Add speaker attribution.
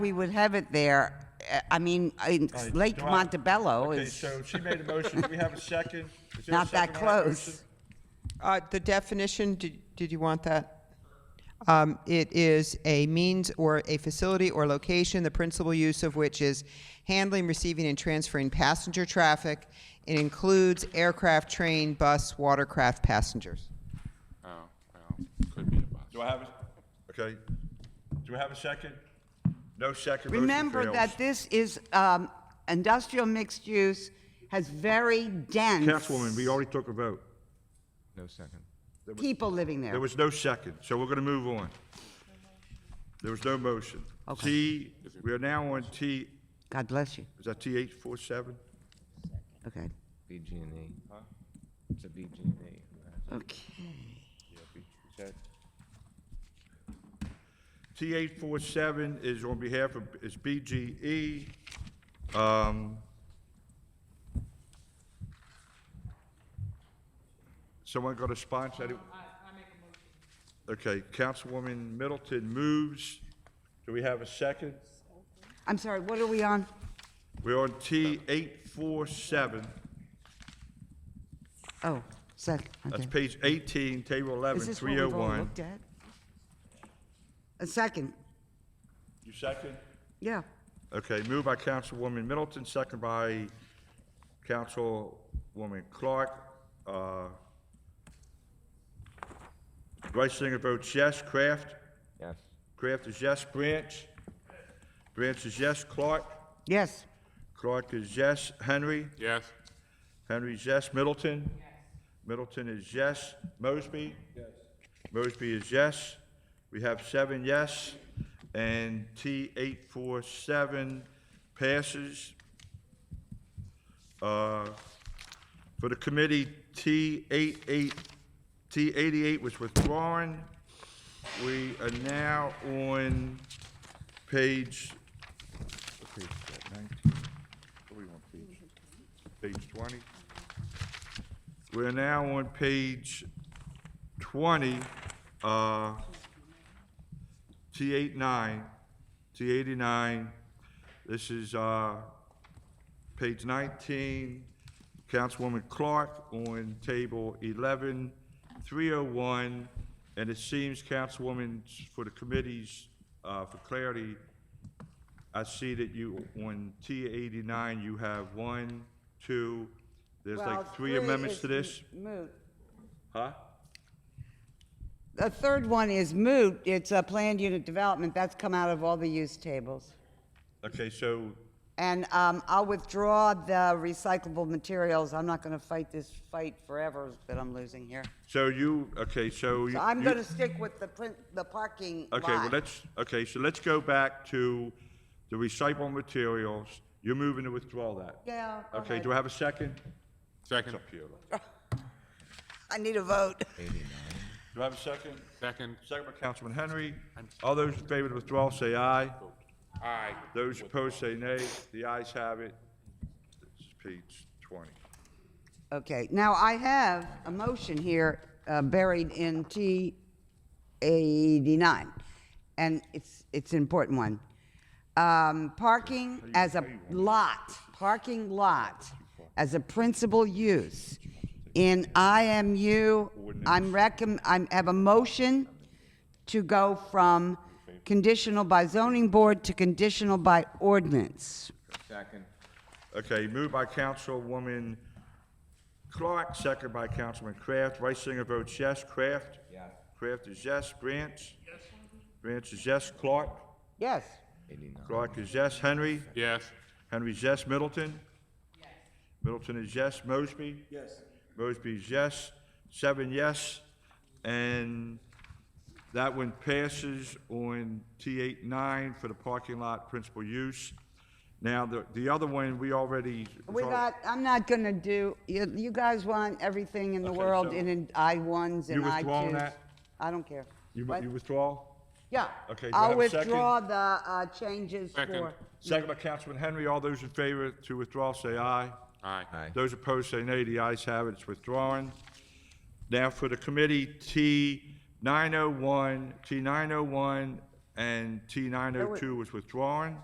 Speaker 1: we would have it there, uh, I mean, in
Speaker 2: Right,
Speaker 1: Lake
Speaker 2: do I-
Speaker 1: Montebello
Speaker 2: Okay,
Speaker 1: is,
Speaker 2: so she made a motion. Do we have a second? Is there a
Speaker 1: Not that
Speaker 2: second on
Speaker 1: close.
Speaker 2: motion?
Speaker 3: Uh, The definition, did did you want that? Um, It is a means or a facility or location, the principal use of which is handling, receiving, and transferring passenger traffic. It includes aircraft, train, bus, watercraft passengers.
Speaker 4: Oh, well, could be a bus.
Speaker 2: Do I have a, okay. Do we have a second? No second. motion
Speaker 1: remember
Speaker 2: fails.
Speaker 1: that this is, um, industrial mixed use has very dense
Speaker 2: Councilwoman, we already took a vote.
Speaker 5: No second.
Speaker 1: people living
Speaker 2: There
Speaker 1: there.
Speaker 2: was no second, so we're going to move on. There was no motion. T, we are now on T,
Speaker 1: God bless you.
Speaker 2: is that T eight four seven?
Speaker 1: Okay.
Speaker 5: BG and E. It's a BG and E.
Speaker 1: Okay.
Speaker 2: T eight four seven is on behalf of, is BGE. Um, Someone got a sponsor? I, I make a motion. Okay, Councilwoman Middleton moves. Do we have a second?
Speaker 1: I'm sorry, what are we on?
Speaker 2: We're on T eight four seven.
Speaker 1: Oh, sec,
Speaker 2: That's
Speaker 1: okay.
Speaker 2: page 18, table oh 11,
Speaker 1: Is this what we've all
Speaker 2: 301.
Speaker 1: looked at? A second,
Speaker 2: You second?
Speaker 1: yeah.
Speaker 2: Okay, moved by Councilwoman Middleton, second by Councilwoman Clark. Uh, Reisinger votes yes. Kraft?
Speaker 5: Yes.
Speaker 2: Kraft is yes. Branch? Branch is yes. Clark?
Speaker 1: Yes,
Speaker 2: Clark is yes. Henry?
Speaker 4: Yes,
Speaker 2: Henry is yes. Middleton? Middleton is yes. Mosby? Yes. Mosby is yes. We have seven yes, and T eight four seven passes. Uh, For the committee, T eight eight, T eighty-eight was withdrawn. We are now on page, what page is that, nineteen? What are we on, page? Page twenty? We're now on page 20, uh, T89, T89. This is uh, page 19, Councilwoman Clark on table 11, 301. And it seems, Councilwoman, for the committees, uh, for clarity, I see that you, on T89, you have one, two, there's like three amendments to this? Huh?
Speaker 1: The third one is moot, it's a planned unit development, that's come out of all the use tables.
Speaker 2: Okay, so
Speaker 1: And um, I'll withdraw the recyclable materials. I'm not going to fight this fight forever that I'm losing here.
Speaker 2: So you, okay, so you.
Speaker 1: So I'm
Speaker 2: you-
Speaker 1: going to stick with the print, the parking lot.
Speaker 2: Okay, well, let's, okay, so let's go back to the recyclable materials. You're moving to withdraw that?
Speaker 1: Yeah, go
Speaker 2: Okay,
Speaker 1: ahead.
Speaker 2: do I have a second?
Speaker 4: second,
Speaker 1: I need a vote.
Speaker 2: Do I have a second?
Speaker 4: second,
Speaker 2: Second by Councilman Henry. All those in favor of the withdrawal, say aye.
Speaker 4: aye.
Speaker 2: Those opposed, say nay. The ayes have it. This is page 20.
Speaker 1: Okay, now I have a motion here uh, buried in T eighty-nine, and it's, it's an important one. Um, Parking as a lot, parking lot as a principal use in IMU, I'm recomm, I'm, have a motion to go from conditional by zoning board to conditional by ordinance.
Speaker 5: Second.
Speaker 2: Okay, moved by Councilwoman Clark, second by Councilman Kraft. Reisinger votes yes. Kraft?
Speaker 5: Yes.
Speaker 2: Kraft is yes. Branch? Yes. Branch is yes. Clark?
Speaker 1: Yes,
Speaker 5: Eighty-nine.
Speaker 2: Clark is yes. Henry?
Speaker 4: Yes,
Speaker 2: Henry is yes. Middleton? Middleton is yes. Mosby? Yes. Mosby is yes. Seven yes. And that one passes on T eight nine for the parking lot principal use. Now, the, the other one, we already.
Speaker 1: We got, I'm not gonna do, you, you guys want everything in the
Speaker 2: Okay,
Speaker 1: world
Speaker 2: so-
Speaker 1: in an I ones and
Speaker 2: You
Speaker 1: I
Speaker 2: withdrawing
Speaker 1: twos.
Speaker 2: that?
Speaker 1: I don't care.
Speaker 2: You,
Speaker 1: What?
Speaker 2: you withdraw?
Speaker 1: Yeah.
Speaker 2: Okay, do I
Speaker 1: I'll
Speaker 2: have a second?
Speaker 1: withdraw the, uh, changes
Speaker 4: Second.
Speaker 1: for,
Speaker 2: Second by Councilman Henry, all those in favor to withdraw, say aye.
Speaker 4: aye.
Speaker 5: Aye.
Speaker 2: Those opposed, say nay. The ayes have it, it's withdrawn. Now for the committee, T nine oh one, T nine oh one and T nine oh two was withdrawn.